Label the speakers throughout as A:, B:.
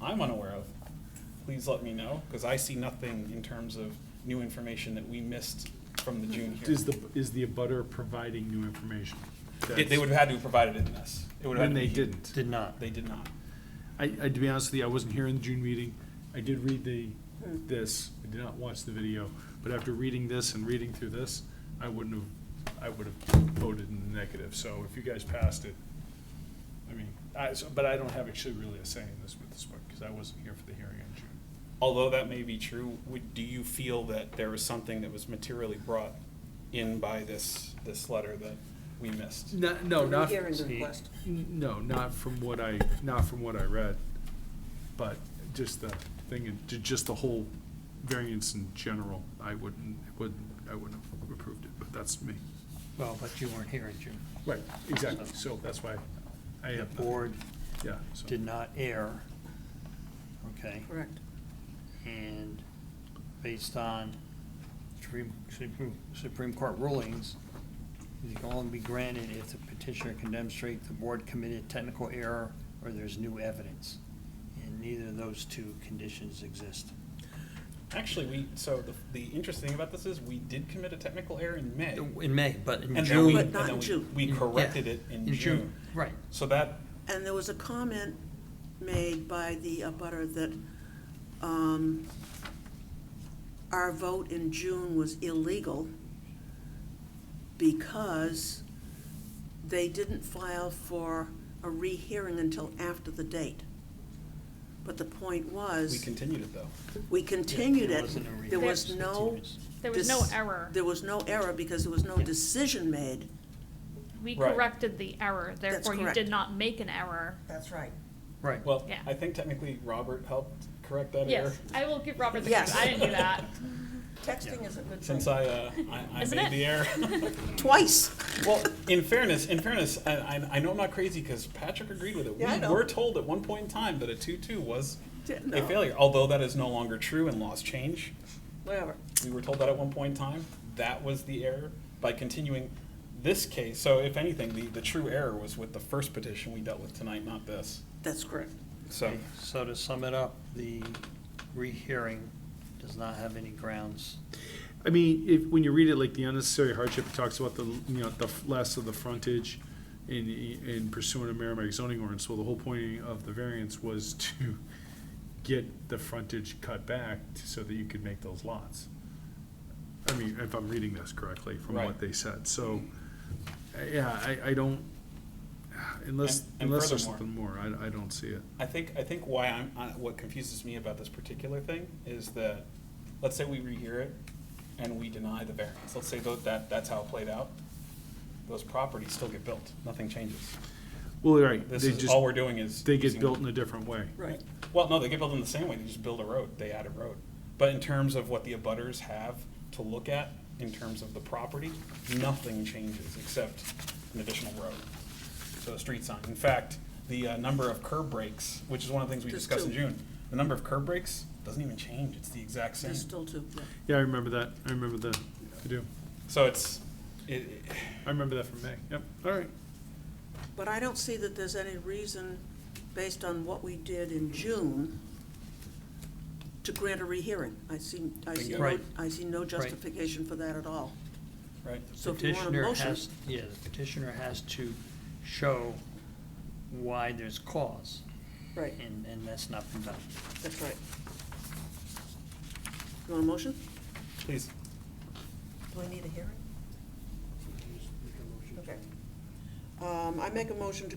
A: I'm unaware of, please let me know, because I see nothing in terms of new information that we missed from the June
B: Is
A: hearing.
B: the, is the abutter providing new information?
A: They- They would have had to have provided it in this. It would have had
B: When
A: to
B: they
A: be-
B: didn't.
C: Did not.
A: They did not.
B: I, I, to be honest with you, I wasn't here in the June meeting. I did read the, this, I did not watch the video, but after reading this and reading through this, I wouldn't have, I would have voted in the negative, so if you guys passed it, I mean, I, so- but I don't have actually really a say in this with this book, because I wasn't here for the hearing in June.
A: Although that may be true, would, do you feel that there was something that was materially brought in by this, this letter that we missed?
B: No, no,
D: The
B: not.
D: rehearing request.
B: N- No, not from what I, not from what I read, but just the thing, in- ju- just the whole variance in general, I wouldn't, wouldn't, I wouldn't have approved it, but that's me.
C: Well, but you weren't here in June.
B: Right, exactly, so that's why I
C: The
B: have. nothing.
C: board
B: Yeah. so-
C: did not err, okay?
D: Correct.
C: And based on Supreme, Supreme, Supreme Court rulings, it can only be granted if the petitioner can demonstrate the board committed technical error or there's new evidence. And neither of those two conditions exist.
A: Actually, we, so the, the interesting thing about this is, we did commit a technical error in May.
C: In May, but in
A: And then we,
C: June.
A: and
D: But not
A: then
D: in
A: we-
D: June.
A: we corrected it in June.
C: Right.
A: So that,
D: And there was a comment made by the abutter that um, our vote in June was illegal because they didn't file for a rehearing until after the date. But the point
A: we
D: was,
A: continued it though.
D: we continued
C: There
D: it.
C: wasn't a
D: There
C: rehearing.
D: was no.
E: There was no
D: dis-
E: error.
D: There was no error because there was no
C: Yeah.
D: decision made.
E: We
A: Right.
E: corrected the error, therefore you
D: correct.
E: did not make an error.
D: That's right.
C: Right.
A: Well,
E: Yeah.
A: I think technically Robert helped correct that error.
E: Yes, I will give Robert the
D: Yes.
E: credit, I didn't do that.
D: Texting is a good
A: Since I, uh, I, I
E: Isn't
A: made
E: it?
A: the error.
D: Twice.
A: Well, in fairness, in fairness, I, I, I know I'm not crazy because Patrick agreed with it.
D: Yeah, I
A: We
D: know.
A: were told at one point in time that a two-two was a
D: No.
A: failure, although that is no longer true and laws change.
D: Whatever.
A: We were told that at one point in time. That was the error by continuing this case. So if anything, the, the true error was with the first petition we dealt with tonight, not this.
D: That's correct.
A: So,
C: So to sum it up, the rehearing does not have any grounds.
B: I mean, if, when you read it, like the unnecessary hardship, it talks about the, you know, the f- less of the frontage in, in pursuant of Merrimack zoning ordinance, so the whole point of the variance was to get the frontage cut back so that you could make those lots. I mean, if I'm reading this correctly from
A: Right.
B: what they said, so, uh, yeah, I, I don't, unless,
A: And- and
B: unless there's
A: furthermore-
B: something more, I, I don't see it.
A: I think, I think why I'm, I- what confuses me about this particular thing is that, let's say we rehear it and we deny the variance. Let's say tho- that, that's how it played out. Those properties still get built, nothing changes.
B: Well, you're right,
A: This
B: they
A: is,
B: just,
A: all we're doing is.
B: they get
A: using-
B: built in a different way.
D: Right.
A: Well, no, they get built in the same way, they just build a road, they add a road. But in terms of what the abutters have to look at, in terms of the property, nothing changes except an additional road. So a street sign. In fact, the uh, number of curb breaks, which is one of the things we
D: There's
A: discussed in
D: two.
A: June, the number of curb breaks doesn't even change, it's the exact same.
D: There's still two. yeah.
B: Yeah, I remember that, I remember that, I do.
A: So it's, it, it-
B: I remember that from May. Yep. All right.
D: But I don't see that there's any reason, based on what we did in June, to grant a rehearing. I see, I see
A: Bingo.
D: no,
C: Right.
D: I see no justification for that at all.
A: right,
D: So if you want a
C: Petitioner
D: motion-
C: has- Yeah, the petitioner has to show why there's cause,
D: Right,
C: and, and that's not been done.
D: that's right. You want a motion?
A: please.
D: Do I need a hearing? Okay. Um, I make a motion to,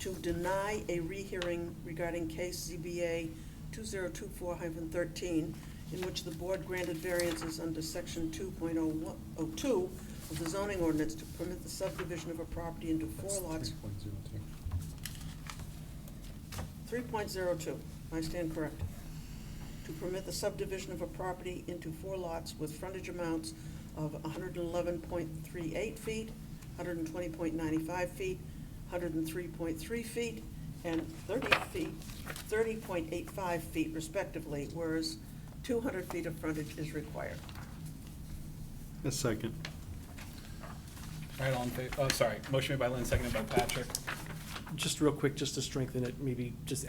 D: to deny a rehearing regarding case ZBA two zero two four thirteen, in which the board granted variances under section two point oh one, oh two of the zoning ordinance to permit the subdivision of a property into four lots. Three point zero two, I stand corrected to permit the subdivision of a property into four lots with frontage amounts of hundred and eleven point three eight feet, hundred and twenty point ninety-five feet, hundred and three point three feet, and thirty feet, thirty point eight five feet respectively, whereas two hundred feet of frontage is required.
B: A second.
A: All right, all in favor, oh, sorry, motion made by Lynn, seconded by Patrick.
F: Just real quick, just to strengthen it, maybe just